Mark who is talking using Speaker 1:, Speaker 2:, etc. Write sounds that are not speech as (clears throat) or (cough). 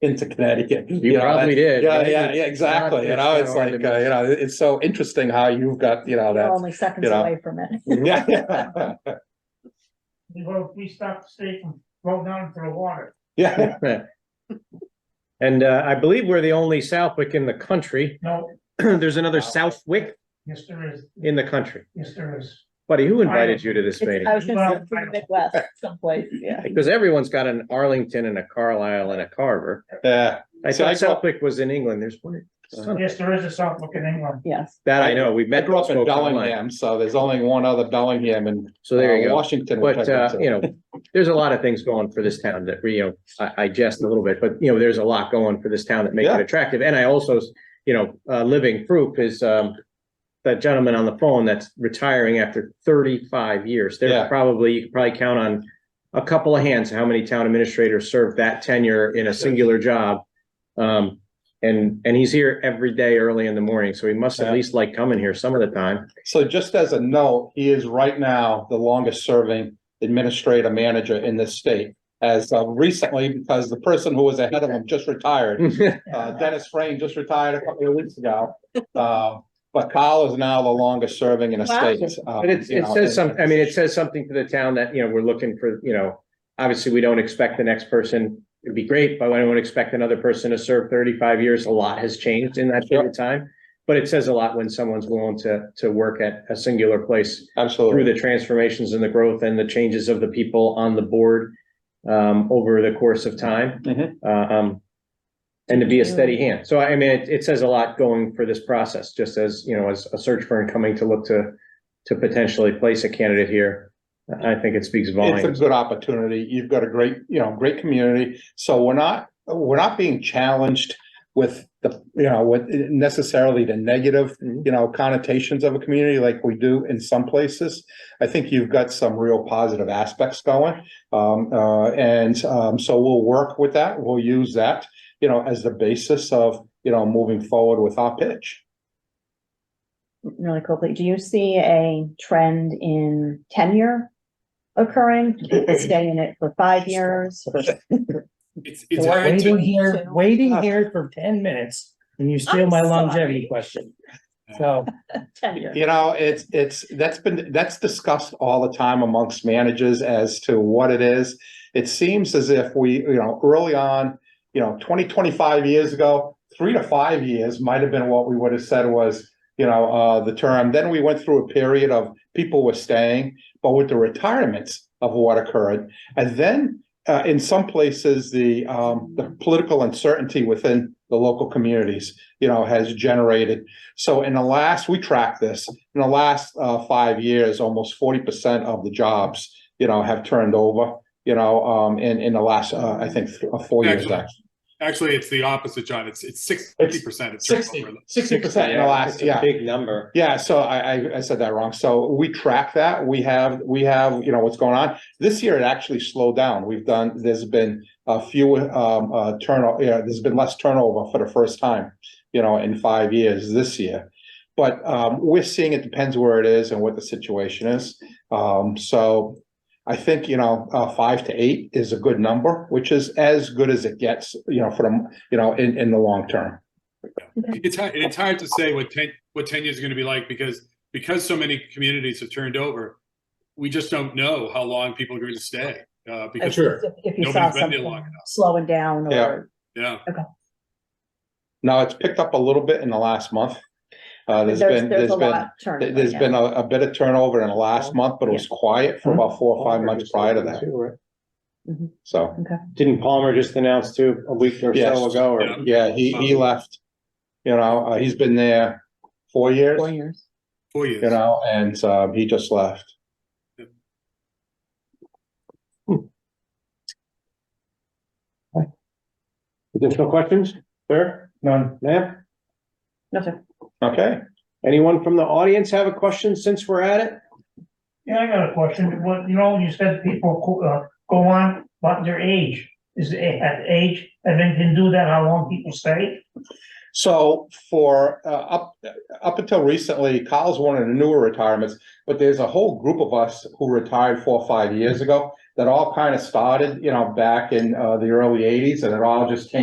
Speaker 1: into Connecticut.
Speaker 2: You
Speaker 1: know,
Speaker 2: probably did.
Speaker 1: Yeah,
Speaker 2: right?
Speaker 1: yeah, yeah, exactly. You know, it's like, uh, you know, it's so interesting how you've got, you know,
Speaker 3: We're
Speaker 1: that. (laughs)
Speaker 3: only seconds
Speaker 1: you know.
Speaker 3: away from it.
Speaker 1: Yeah, yeah,
Speaker 4: We hope we stop the state from going down to the water.
Speaker 1: yeah. (laughs)
Speaker 2: And uh, I believe we're the only Southwick in the country. (clears throat)
Speaker 4: No,
Speaker 2: There's another
Speaker 1: Wow.
Speaker 2: Southwick
Speaker 4: yes, there is,
Speaker 2: in the country.
Speaker 4: yes, there is.
Speaker 2: Buddy, who invited you to this
Speaker 3: It's-
Speaker 2: meeting?
Speaker 3: I was
Speaker 4: Well,
Speaker 3: gonna say
Speaker 4: I
Speaker 3: from
Speaker 4: don't-
Speaker 1: (laughs)
Speaker 3: the Midwest someplace, yeah.
Speaker 2: Because everyone's got an Arlington and a Carlisle and a Carver.
Speaker 1: Yeah.
Speaker 2: I
Speaker 1: See, I
Speaker 2: thought
Speaker 1: grew up-
Speaker 2: Southwick was in England. There's one. son of a-
Speaker 4: Yes, there is a Southwick in England.
Speaker 3: Yes.
Speaker 2: That I know. We
Speaker 1: I
Speaker 2: met.
Speaker 1: grew up in
Speaker 2: spoke online.
Speaker 1: Bellingham, so there's only one other Bellingham in
Speaker 2: So there you
Speaker 1: uh,
Speaker 2: go.
Speaker 1: Washington. which I've
Speaker 2: But, uh,
Speaker 1: been to.
Speaker 2: you know, there's a lot of things going for this town that, you know, I, I jest a little bit, but, you know, there's a lot going for this town that makes
Speaker 1: Yeah.
Speaker 2: it attractive. And I also, you know, uh, living proof is, um, that gentleman on the phone that's retiring after thirty-five years.
Speaker 1: Yeah.
Speaker 2: There's probably, you could probably count on a couple of hands, how many town administrators served that tenure in a singular job. Um, and, and he's here every day early in the morning, so he must
Speaker 1: Yeah.
Speaker 2: at least like coming here some of the time. (laughs)
Speaker 1: So just as a note, he is right now the longest serving administrator manager in this state. As uh, recently, because the person who was ahead of him just retired, uh, Dennis Frayne just retired a couple of weeks ago. Uh, but Kyle is now the longest serving in a
Speaker 3: Wow.
Speaker 1: state. uh,
Speaker 2: But it,
Speaker 1: you
Speaker 2: it
Speaker 1: know,
Speaker 2: says some,
Speaker 1: and-
Speaker 2: I mean, it says something to the town that, you know, we're looking for, you know, obviously, we don't expect the next person, it'd be great, but I don't expect another person to serve thirty-five years. A lot has changed in that period of time. But it says a lot when someone's willing to, to work at a singular place through
Speaker 1: Absolutely.
Speaker 2: the transformations and the growth and the changes of the people on the board um, over the course of time.
Speaker 1: Mhm.
Speaker 2: Uh, um, and to be a steady hand. So I mean, it, it says a lot going for this process, just as, you know, as a search firm coming to look to, to potentially place a candidate here. I think it speaks
Speaker 1: It's a
Speaker 2: volumes.
Speaker 1: good opportunity. You've got a great, you know, great community. So we're not, we're not being challenged with the, you know, with necessarily the negative,
Speaker 2: Mhm.
Speaker 1: you know, connotations of a community like we do in some places. I think you've got some real positive aspects going. Um, uh, and, um, so we'll work with that. We'll use that, you know, as the basis of, you know, moving forward with our pitch.
Speaker 3: really quickly, do you see a trend in tenure occurring? People stay in it for five years?
Speaker 5: It's,
Speaker 6: So
Speaker 5: it's
Speaker 3: Or-
Speaker 5: hard
Speaker 6: Waiting
Speaker 5: to,
Speaker 6: here,
Speaker 3: Two.
Speaker 6: waiting here for ten minutes and you steal
Speaker 3: I'm
Speaker 6: my
Speaker 3: sorry.
Speaker 6: longevity question. So,
Speaker 3: Tenure.
Speaker 1: You know, it's, it's, that's been, that's discussed all the time amongst managers as to what it is. It seems as if we, you know, early on, you know, 20, 25 years ago, three to five years might have been what we would have said was, you know, uh, the term. Then we went through a period of people were staying, but with the retirements of what occurred. And then, uh, in some places, the, um, the political uncertainty within the local communities, you know, has generated so in the last, we track this, in the last uh five years, almost forty percent of the jobs, you know, have turned over. You know, um in in the last, uh, I think, th- uh, four years,
Speaker 5: Excellent. actually, it's the opposite, John. It's, it's sixty percent.
Speaker 1: sixty, sixty percent in the last, yeah.
Speaker 2: Big number.
Speaker 1: Yeah, so I, I, I said that wrong. So we track that. We have, we have, you know, what's going on. This year it actually slowed down. We've done, there's been a few, um, uh, turnover, yeah, there's been less turnover for the first time, you know, in five years this year. But, um, we're seeing it depends where it is and what the situation is. Um, so I think, you know, uh, five to eight is a good number, which is as good as it gets, you know, for the you know, in, in the long term.
Speaker 5: It's hard, it's hard to say what ten, what ten years is gonna be like because, because so many communities have turned over. We just don't know how long people are going to stay, uh, because,
Speaker 3: If- If you saw
Speaker 5: Nobody's been there long
Speaker 3: something
Speaker 5: enough.
Speaker 3: slowing down
Speaker 1: Yeah.
Speaker 3: or,
Speaker 5: yeah.
Speaker 1: Now, it's picked up a little bit in the last month. Uh,
Speaker 3: there's,
Speaker 1: there's been,
Speaker 3: there's
Speaker 1: there's
Speaker 3: a
Speaker 1: been,
Speaker 3: lot turning.
Speaker 1: there's been a, a bit of turnover in the last month, but it was quiet for about four or five months prior to that. So,
Speaker 2: Didn't Palmer just announce too, a week or
Speaker 1: Yes.
Speaker 2: so ago?
Speaker 5: Yeah.
Speaker 2: or-
Speaker 1: yeah, he, he
Speaker 3: Um,
Speaker 1: left, you know, uh, he's been there four years,
Speaker 3: Four years.
Speaker 5: Four
Speaker 1: you
Speaker 5: years.
Speaker 1: know, and, um, he just left.
Speaker 2: Additional questions? Sir?
Speaker 4: None.
Speaker 2: Ma'am?
Speaker 3: Nothing.
Speaker 1: Okay,
Speaker 2: Anyone from the audience have a question since we're at it?
Speaker 4: Yeah, I got a question. What, you know, you said people co- uh, go on about their age. Is the a- at age, and then can do that, how long people stay?
Speaker 1: so for, uh, up, up until recently, Kyle's one of the newer retirements, but there's a whole group of us who retired four or five years ago that all kind of started, you know, back in, uh, the early eighties and it all just came